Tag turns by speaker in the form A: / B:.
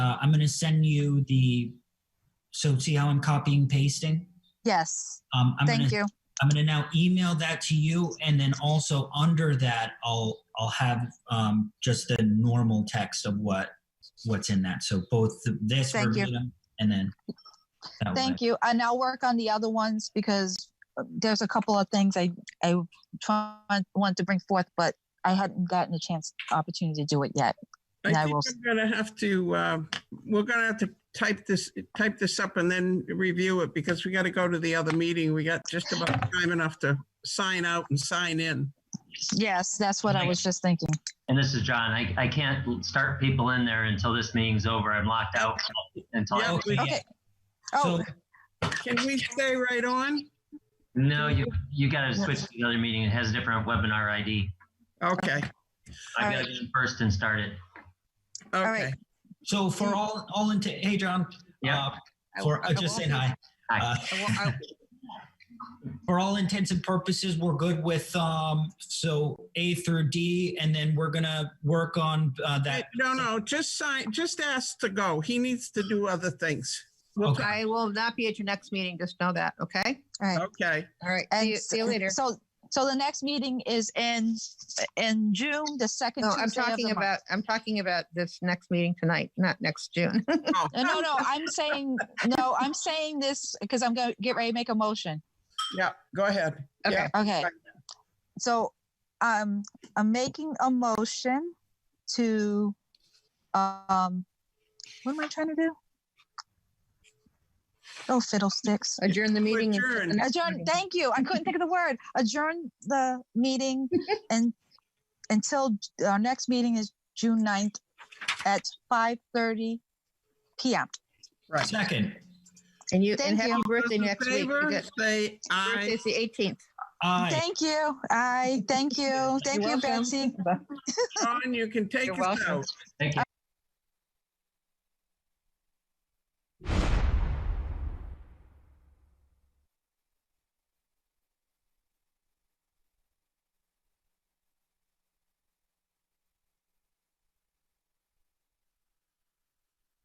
A: uh, I'm gonna send you the, so see how I'm copying, pasting?
B: Yes,
A: Um, I'm gonna,
B: thank you.
A: I'm gonna now email that to you, and then also under that, I'll, I'll have, um, just the normal text of what, what's in that. So both this
B: Thank you.
A: verbatim and then. that way.
B: Thank you. And I'll work on the other ones because there's a couple of things I, I try, want to bring forth, but I hadn't gotten a chance, opportunity to do it yet. And I
C: I think
B: will-
C: we're gonna have to, uh, we're gonna have to type this, type this up and then review it because we gotta go to the other meeting. We got just about time enough to sign out and sign in.
B: Yes, that's what I was just thinking.
D: And this is John. I, I can't start people in there until this meeting's over. I'm locked out until. I-
C: Yeah, we-
A: Yeah.
B: Okay.
A: So,
B: Oh,
C: Can we stay right on?
D: No, you, you gotta switch to the other meeting. It has a different webinar ID.
C: Okay,
D: I gotta
B: Alright.
D: get in first and start it.
B: right.
C: okay.
A: so for all, all into, hey, John.
D: Yeah.
A: uh, For, uh, just saying hi.
D: Hi.
A: Uh, For all intents and purposes, we're good with, um, so A through D, and then we're gonna work on, uh, that.
C: No, no, just sign, just ask to go. He needs to do other things.
E: Well,
A: Okay.
E: I will not be at your next meeting, just know that, okay?
B: All right.
C: Okay,
E: All right, see
B: And
E: you, see you later.
B: So, so the next meeting is in, in June, the second
E: No,
B: Tuesday
E: I'm
B: of the
E: talking
B: month.
E: about, I'm talking about this next meeting tonight, not next June.
C: Oh,
B: No, no, no, I'm saying, no, I'm saying this because I'm gonna get ready to make a motion.
C: yeah, go ahead.
E: Okay.
C: Yeah,
B: Okay.
C: Right.
B: So, um, I'm making a motion to, um, what am I trying to do? Oh, fiddlesticks.
E: Adjourn the meeting. and-
C: Adjourn.
E: the next
B: Adjourn,
E: meeting.
B: thank you. I couldn't think of the word. Adjourn the meeting and until our next meeting is June 9th at five thirty PM.
C: Right.
A: Second,
E: And you, and
B: Thank
E: happy
B: you.
E: birthday
C: Those in
E: next week.
C: favor,
E: You get-
C: Say aye.
E: Birthday's the eighteenth.
A: aye.
B: Thank you. I, thank you. Thank you,
E: welcome.
B: Betsy.
C: John, you can take
E: You're
C: us
E: welcome.
C: out.
D: Thank you.